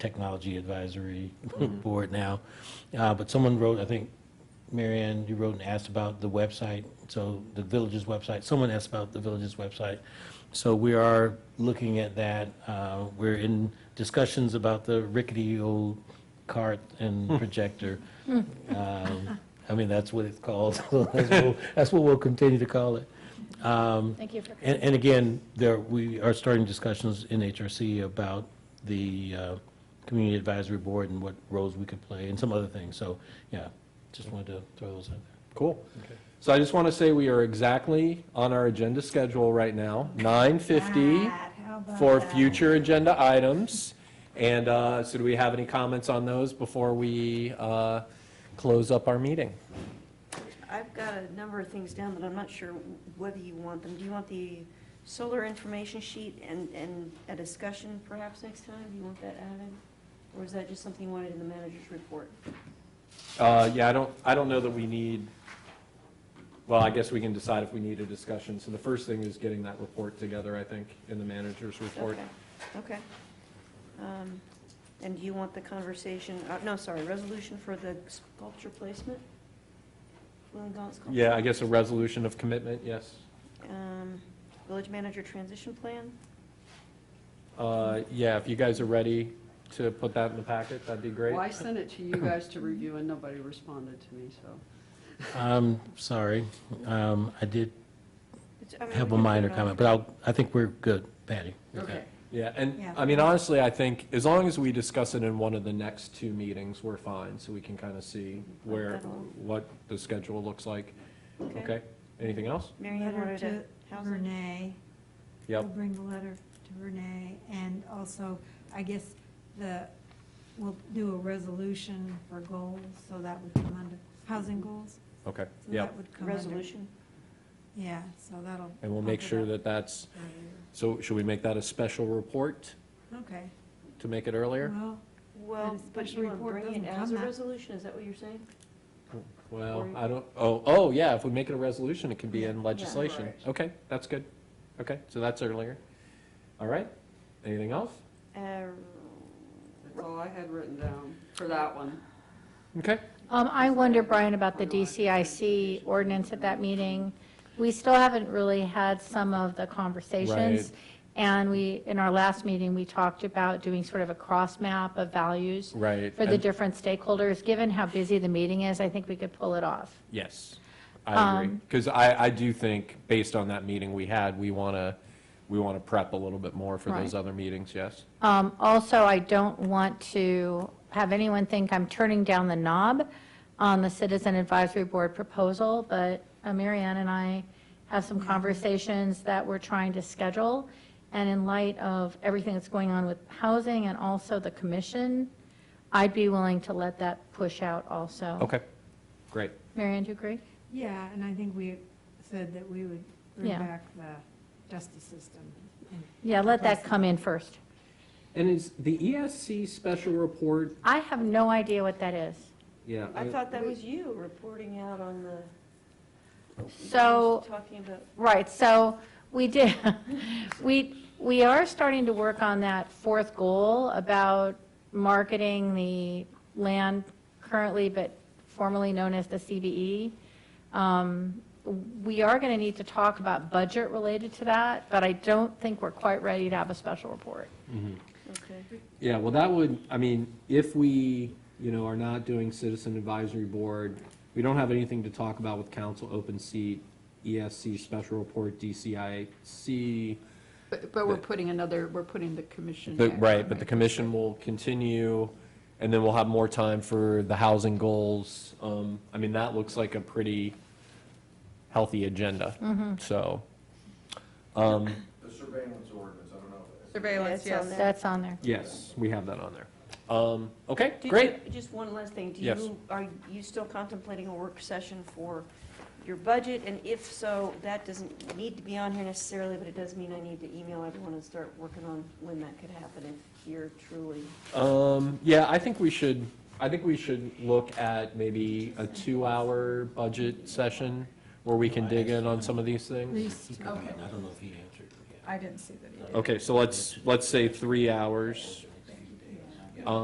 technology advisory board now. Uh, But someone wrote, I think, Marianne, you wrote and asked about the website, so the village's website, someone asked about the village's website. So we are looking at that. Uh, We're in discussions about the rickety old cart and projector. Um, I mean, that's what it's called. That's what- That's what we'll continue to call it. Um, Thank you for, and, and again, there, we are starting discussions in HRC about the uh, Community Advisory Board and what roles we could play and some other things. So, yeah, just wanted to throw those out there. Cool. So I just want to say we are exactly on our agenda schedule right now, 9:50 for future agenda items. And uh, so do we have any comments on those before we uh, close up our meeting? I've got a number of things down, but I'm not sure whether you want them. Do you want the solar information sheet and, and a discussion perhaps next time? Do you want that added? Or is that just something you wanted in the manager's report? Uh, Yeah, I don't, I don't know that we need, well, I guess we can decide if we need a discussion. So the first thing is getting that report together, I think, in the manager's report. Okay, okay. Um, And do you want the conversation, uh, no, sorry, resolution for the sculpture placement? Wollongong sculpture? Yeah, I guess a resolution of commitment, yes. Um, Village manager transition plan? Uh, Yeah, if you guys are ready to put that in the packet, that'd be great. Well, I sent it to you guys to review, and nobody responded to me, so. I'm sorry, um, I did It's- I mean, we have a can put minor it on. comment, but I'll, I think we're good, Patty. Yeah, and, Yeah. I mean, honestly, I think, as long as we discuss it in one of the next two meetings, we're fine, so we can kind of see where, what the schedule looks like. Okay. Okay, anything else? Mary Ann Letter wanted to, to housing? Renee. We'll Yep, bring the letter to Renee, and also, I guess, the, we'll do a resolution for goals, so that would come under, housing goals? okay, So yep. that would come under- Resolution? Yeah, so that'll. And we'll make bump it sure up that that's, earlier. so should we make that a special report Okay, to make it earlier? well, Well, But a but special you want to report bring doesn't it as come a out. resolution, is that what you're saying? Well, I don't, oh, oh, yeah, if we make it a resolution, it can be in legislation. Right. Okay, that's good. Okay, so that's earlier. All right, anything else? Uh, That's all I had written down for that one. Okay, um, I wonder, Brian, about the DCIC ordinance at that meeting. We still haven't really had some of the conversations. Right. And we, in our last meeting, we talked about doing sort of a cross map of values right. for the and- different stakeholders. Given how busy the meeting is, I think we could pull it off. Yes, I agree. Um, Because I, I do think, based on that meeting we had, we want to, we want to prep a little bit more for those Right. other meetings, yes? Um, Also, I don't want to have anyone think I'm turning down the knob on the Citizen Advisory Board proposal, but uh, Mary Ann and I have some conversations that we're trying to schedule, and in light of everything that's going on with housing and also the commission, I'd be willing to let that push out also. Okay, great. Mary Ann, do you agree? yeah, and I think we said that we would bring Yeah. back the justice system. and- Yeah, let that come in first. And is the ESC special report, I have no idea what that is. yeah, I thought that was you reporting out on the. So. Talking about, Right, so we did, we, we are starting to work on that fourth goal about marketing the land currently, but formerly known as the CBE. Um, We are going to need to talk about budget related to that, but I don't think we're quite ready to have a special report. okay. Yeah, well, that would, I mean, if we, you know, are not doing citizen advisory board, we don't have anything to talk about with council, open seat, ESC special report, DCIC. But, but we're putting another, we're putting the commission. But, back. right, but the commission will continue, and then we'll have more time for the housing goals. Um, I mean, that looks like a pretty healthy agenda, so. um, The surveillance ordinance, I don't know. Surveillance, Yeah, it's on yes. there. That's on there. Yes, we have that on there. Um, Okay, Do you- great. Just one last thing. Do Yes. you, are you still contemplating a work session for your budget? And if so, that doesn't need to be on here necessarily, but it does mean I need to email everyone and start working on when that could happen if you're truly. Um, yeah, I think we should, I think we should look at maybe a two-hour budget session where we can dig in on some of these things. I don't know if he answered. I didn't see that either. Okay, so let's, let's say three hours